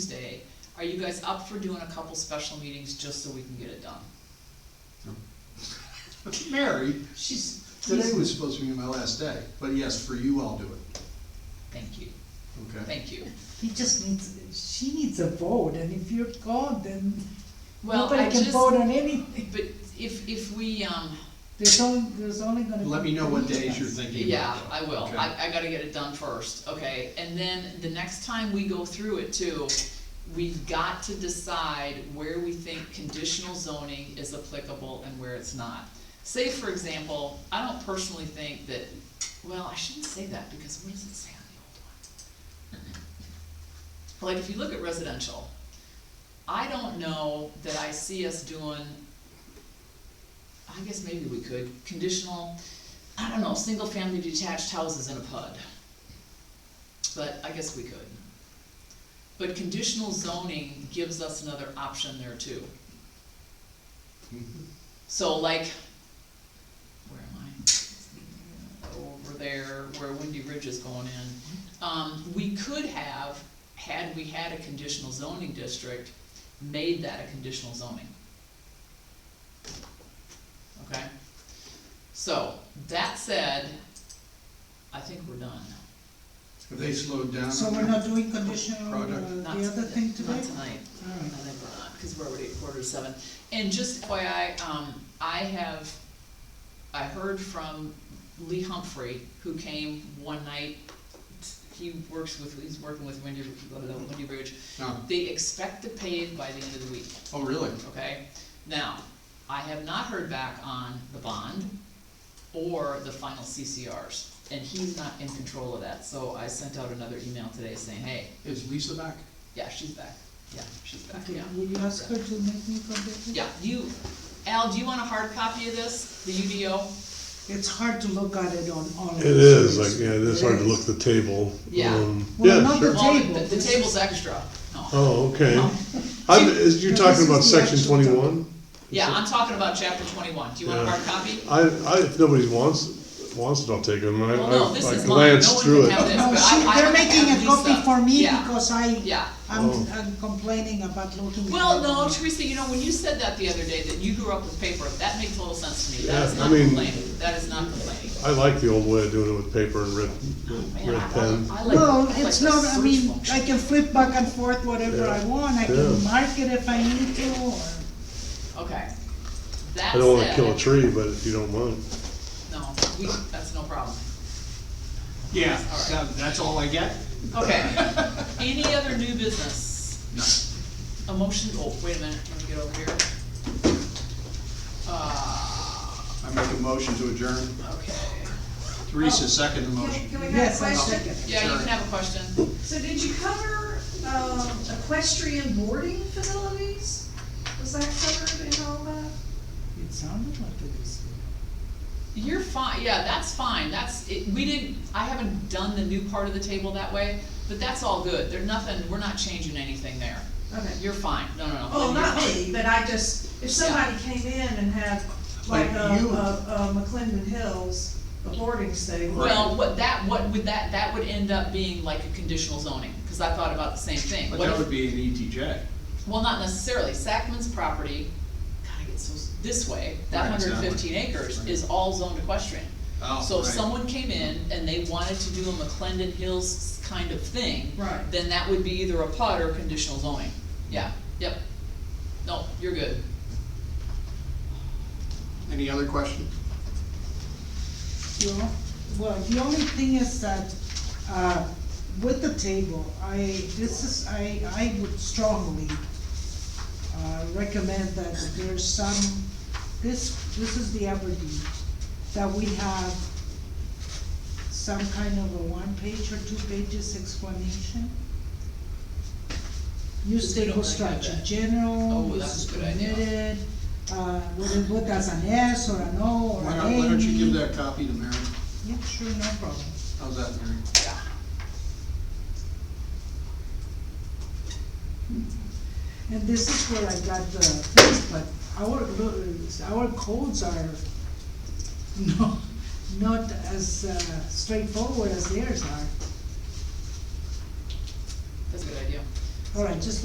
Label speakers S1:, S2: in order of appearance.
S1: Tuesday, are you guys up for doing a couple special meetings just so we can get it done?
S2: Mary,
S1: She's,
S2: today was supposed to be my last day, but yes, for you, I'll do it,
S1: thank you,
S2: okay?
S1: thank you.
S3: He just needs, she needs a vote, and if you're gone, then
S1: Well, I
S3: nobody can
S1: just,
S3: vote
S1: but
S3: on anything.
S1: if, if we, um,
S3: There's only, there's only gonna be.
S2: Let me know what
S3: three
S2: days
S3: of
S2: you're
S3: us.
S2: thinking
S1: yeah,
S2: about. though,
S1: I will,
S2: okay?
S1: I, I gotta get it done first, okay? And then the next time we go through it too, we've got to decide where we think conditional zoning is applicable and where it's not. Say, for example, I don't personally think that, well, I shouldn't say that, because what does it say on the old one? like if you look at residential, I don't know that I see us doing, I guess maybe we could, conditional, I don't know, single-family detached houses in a PUD. But I guess we could. But conditional zoning gives us another option there too.
S2: Mhm.
S1: So like, where am I? Over there, where Windy Ridge is going in. Um, we could have, had we had a conditional zoning district, made that a conditional zoning. Okay? So, that said, I think we're done.
S2: Have they slowed down?
S3: So we're not doing conditional, uh,
S2: Product.
S3: the
S1: Not
S3: other
S1: today-
S3: thing today?
S1: Not tonight. I
S3: All right.
S1: think we're not, because we're already at quarter to seven. And just FYI, um, I have, I heard from Lee Humphrey, who came one night. He works with, he's working with Wendy, Wendy Bridge.
S2: No.
S1: They expect to pave by the end of the week,
S2: Oh, really?
S1: okay? Now, I have not heard back on the bond or the final CCRs, and he's not in control of that. So I sent out another email today saying, hey,
S2: Is Lisa back?
S1: yeah, she's back, yeah, she's back,
S3: Okay,
S1: yeah.
S3: will you ask her to make me contact?
S1: Yeah, you, Al, do you want a hard copy of this, the UDO?
S3: It's hard to look at it on all.
S4: It is, like, yeah, it is hard to look at the table.
S1: Yeah.
S4: Um,
S3: Well,
S4: Yeah,
S3: not
S4: sure.
S3: The
S1: Well,
S3: table.
S1: The table's extra, no.
S4: Oh, okay.
S1: No.
S4: I'm, is, you're
S3: No, this
S4: talking about
S3: is the
S4: section
S3: actual document.
S4: twenty-one?
S1: Yeah, I'm talking about chapter twenty-one, do you want a
S4: Yeah.
S1: hard copy?
S4: I, I, if nobody wants, wants it, I'll take it, I mean, I,
S1: Well, no,
S4: I
S1: this
S4: I
S1: is mine, no
S4: glanced
S1: one can
S4: through it.
S1: have this,
S3: No,
S1: but
S3: she,
S1: I, I
S3: they're
S1: have
S3: making a
S1: Lisa.
S3: copy for me
S1: Yeah,
S3: because I,
S1: Yeah,
S3: I'm,
S4: Oh.
S3: I'm complaining about looking. at
S1: well,
S3: it.
S1: no, Teresa, you know, when you said that the other day, that you grew up with paper, that made total sense to me, that
S4: Yeah,
S1: is
S4: I
S1: not
S4: mean-
S1: complaining, that is not complaining.
S4: I like the old way of doing it with paper and red,
S1: Oh, Man, I-
S4: red pen.
S1: I like-
S3: No,
S1: I like
S3: it's
S1: the
S3: not, I
S1: search
S3: mean,
S1: function.
S3: I can flip back and forth whatever
S4: Yeah.
S3: I want, I
S4: Yeah.
S3: can mark it if I need to, or.
S1: Okay, that
S4: I don't wanna
S1: said-
S4: kill a tree, but if you don't mind.
S1: No, we, that's no problem.
S2: Yeah,
S1: All
S2: that's all I get?
S1: Okay, any other new business? A motion, oh, wait a minute, let me get over here. Uh,
S2: I make a motion to adjourn.
S1: okay,
S2: Teresa, second the
S5: Can
S2: motion.
S5: can we have a
S3: Yes, I second.
S5: question?
S1: yeah, you can have a question.
S5: So did you cover um, equestrian boarding facilities? Was that covered in all that?
S3: It sounded like it was.
S1: You're fine, yeah, that's fine, that's, it, we didn't, I haven't done the new part of the table that way, but that's all good, there's nothing, we're not changing anything there.
S5: Okay.
S1: You're fine, no, no, no.
S5: Oh,
S1: you're
S5: not
S1: fine.
S5: me, but I just, if somebody came in and had like
S2: Like
S5: a,
S2: you.
S5: a a McClendon Hills, a boarding stable.
S1: Well, what that, what would that, that would end up being like a conditional zoning, cause I thought about the same thing.
S2: But
S1: What
S2: that
S1: if-
S2: would be an E ETJ.
S1: Well, not necessarily, Sackman's property, God, I get so, s- this way, that
S2: Right,
S1: hundred
S2: exactly.
S1: fifteen acres
S2: Right.
S1: is all zoned equestrian.
S2: Oh,
S1: So if
S2: right.
S1: someone came in and they wanted to do a McClendon Hills kind of thing.
S5: Right.
S1: Then that would be either a PUD or conditional zoning, yeah, yep, no, you're good.
S2: Any other questions?
S3: You know, well, the only thing is that, uh, with the table, I, this is, I, I would strongly, uh, recommend that there's some, this, this is the Aberdeen, that we have some kind of a one-page or two-pages explanation.
S1: They
S3: New
S1: don't
S3: stable
S1: like
S3: structure,
S1: that.
S3: general,
S1: Oh,
S3: this
S1: that's
S3: is
S1: a good idea.
S3: permitted, uh, what, it- what does an S or an O or
S2: Why
S3: an A
S2: don't, why don't you give
S3: mean?
S2: that copy to Mary?
S3: Yeah, sure, no problem.
S2: How's that, Mary?
S1: Yeah.
S3: And this is where I got the things, but our, lo- our codes are no, not as uh, straightforward as theirs are.
S1: That's a good idea.
S3: All right, just